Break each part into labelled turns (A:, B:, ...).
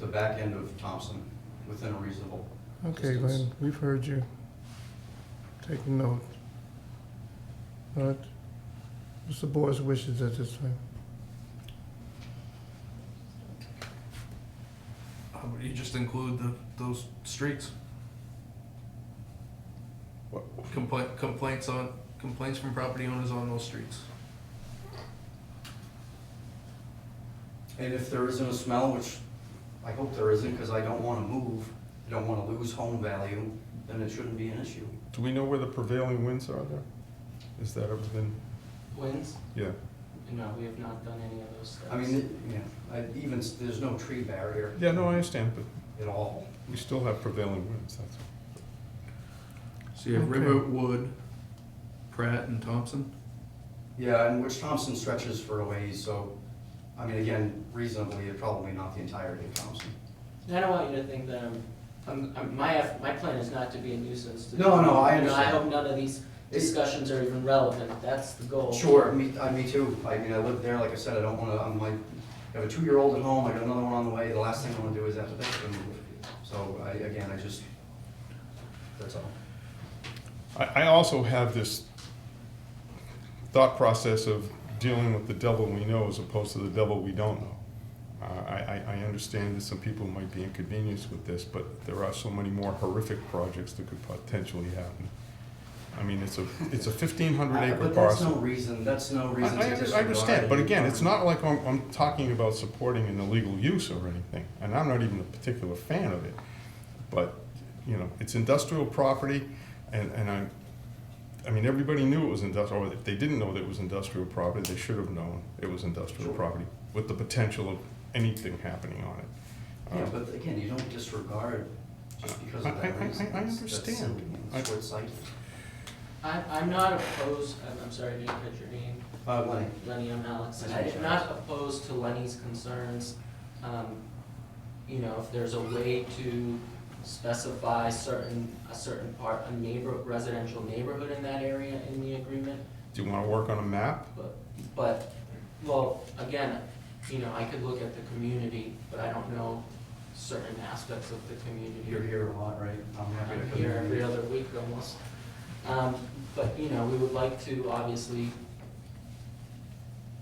A: the back end of Thompson within a reasonable
B: Okay,
A: distance.
B: Glenn, we've heard you. Take note. But what's the board's wishes at this time?
C: How about you just include the, those streets?
A: What?
C: Complaint, complaints on, complaints from property owners on those streets.
A: And if there isn't a smell, which I hope there isn't, because I don't want to move, I don't want to lose home value, then it shouldn't be an issue.
D: Do we know where the prevailing winds are there? Is that ever been,
E: Wins?
D: yeah,
E: No, we have not done any of those steps.
A: I mean, it- you know, I- even, s- there's no tree barrier
D: yeah, no, I understand, but
A: at all.
D: we still have prevailing winds, that's all.
C: So you have
B: Okay.
C: Riverwood, Pratt, and Thompson?
A: Yeah, and which Thompson stretches for a ways, so, I mean, again, reasonably, it's probably not the entirety of Thompson.
E: And I don't want you to think that I'm, I'm, I'm, my, eff- my plan is not to be a nuisance to. the
A: No, no, I
E: community. You know, I
A: understand.
E: hope none of these discussions are even relevant, that's the goal.
A: Sure, me, I, me too. I mean, I live there, like I said, I don't wanna, I'm like, I have a two-year-old at home, I got another one on the way, the last thing I wanna do is have to pick them. So I, again, I just, that's all.
D: I, I also have this thought process of dealing with the devil we know as opposed to the devil we don't know. Uh, I, I, I understand that some people might be inconvenienced with this, but there are so many more horrific projects that could potentially happen. I mean, it's a, it's a fifteen hundred
A: I-
D: acre
A: Uh, But that's no
D: parcel.
A: reason, that's no
D: I,
A: reason
D: I
A: to
D: under-
A: disregard.
D: I understand, but again, it's
A: the
D: not like I'm, I'm talking about supporting an illegal use or anything, and I'm not even a particular fan of it. But, you know, it's industrial property, and, and I, I mean, everybody knew it was industrial, or if they didn't know that it was industrial property, they should have known it was industrial
A: Sure.
D: property, with the potential of anything happening on it. Uh,
A: environment. Yeah, but again, you don't disregard just because
D: I-
A: of
D: I- I-
A: that reason.
D: I
A: That's- that's
D: understand.
A: silly and
D: I-
A: Short-sighted.
E: I, I'm not opposed, I'm, I'm sorry, I didn't catch your name.
A: Uh, Lenny,
E: Lenny, I'm Alex, and
A: That's
E: I'm
A: right.
E: not opposed to Lenny's concerns. Um, You know, if there's a way to specify certain, a certain part, a neighbor, residential neighborhood in that area in the agreement,
D: Do you wanna work on a map?
E: but, but, well, again, you know, I could look at the community, but I don't know certain aspects of the community.
A: you're here a lot, right? I'm happy to
E: I'm
A: come
E: here every
A: in.
E: other week almost. Um, But, you know, we would like to obviously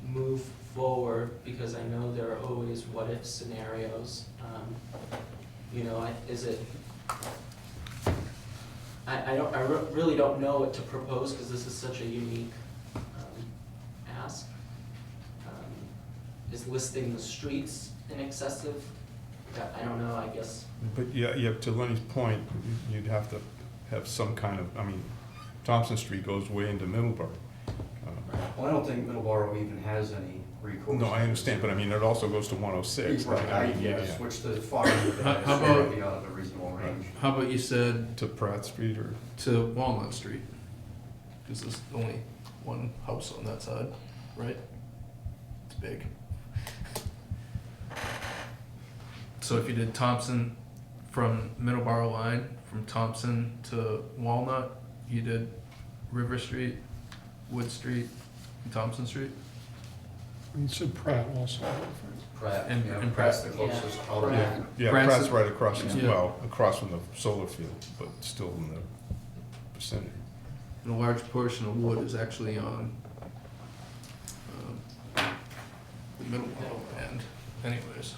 E: move forward because I know there are always what-if scenarios. Um, You know, I- is it, I, I don't, I re- really don't know what to propose because this is such a unique um, ask. Um, Is listing the streets an excessive? I- I don't know, I guess.
D: But yeah, yeah, to Lenny's point, you'd have to have some kind of, I mean, Thompson Street goes way into Middleborough. Uh,
A: Well, I don't think Middleborough even has any recourse.
D: No, I understand, but I mean, it also goes to one oh six.
A: Right, I, yeah, switch the far end of it,
C: How- how
A: it's gonna
C: about-
A: be out of the reasonable range.
C: How about you said
D: To Pratt Street or,
C: to Walnut Street? Cause there's only one house on that side, right? It's big. So if you did Thompson from Middleborough line, from Thompson to Walnut, you did River Street, Wood Street, and Thompson Street?
F: And so Pratt also.
A: Pratt,
C: And-
A: yeah,
C: and
A: Pratt's the
E: Pratt.
A: closest
E: Yeah.
A: probably.
E: Pratt.
D: yeah,
C: Pratt's-
D: Pratt's right across, from-
C: Yeah.
D: well, across from the solar field, but still in the vicinity.
C: And a large portion of wood is actually on um, the middle wall end anyways,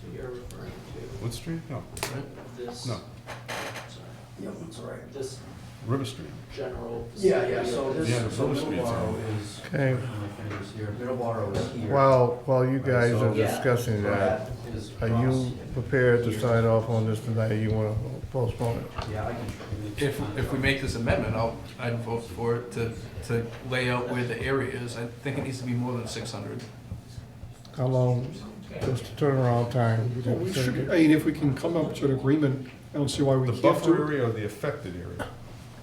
E: So you're referring to
D: Wood Street? No,
C: right?
E: this?
D: No.
E: Sorry,
A: Yeah, that's right.
E: This
D: River Street.
E: general.
A: Yeah, yeah, so this,
D: Yeah,
A: so
D: the Fuller Street's on.
A: Middleborough is,
B: Okay,
A: my fingers here, Middleborough is here.
B: while, while you guys
A: So-
B: are
E: Yeah.
B: discussing that,
A: Pratt is
B: are
A: across
B: you
A: here.
B: prepared to sign off on this tonight, or you wanna postpone it?
A: Yeah, I can.
C: If, if we make this amendment, I'll, I'd vote for it to, to lay out where the area is. I think it needs to be more than six hundred.
B: How long, just the turnaround time?
F: Well, we should, I mean, if we can come up to an agreement, I don't see why we
D: The
F: can't
D: buffer
F: do it.
D: area or the affected area?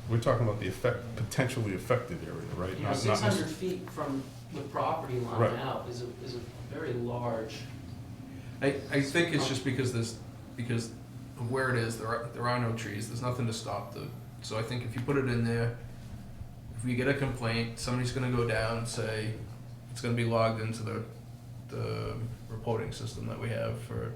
D: We're talking about the affect, potentially affected area, right?
E: You know,
D: Not-
E: six
D: not necess-
E: hundred feet from the property
D: Right.
E: line out is a, is a very large.
C: I, I think it's just because there's, because of where it is, there are, there are no trees, there's nothing to stop the, so I think if you put it in there, if we get a complaint, somebody's gonna go down, say, it's gonna be logged into the the reporting system that we have for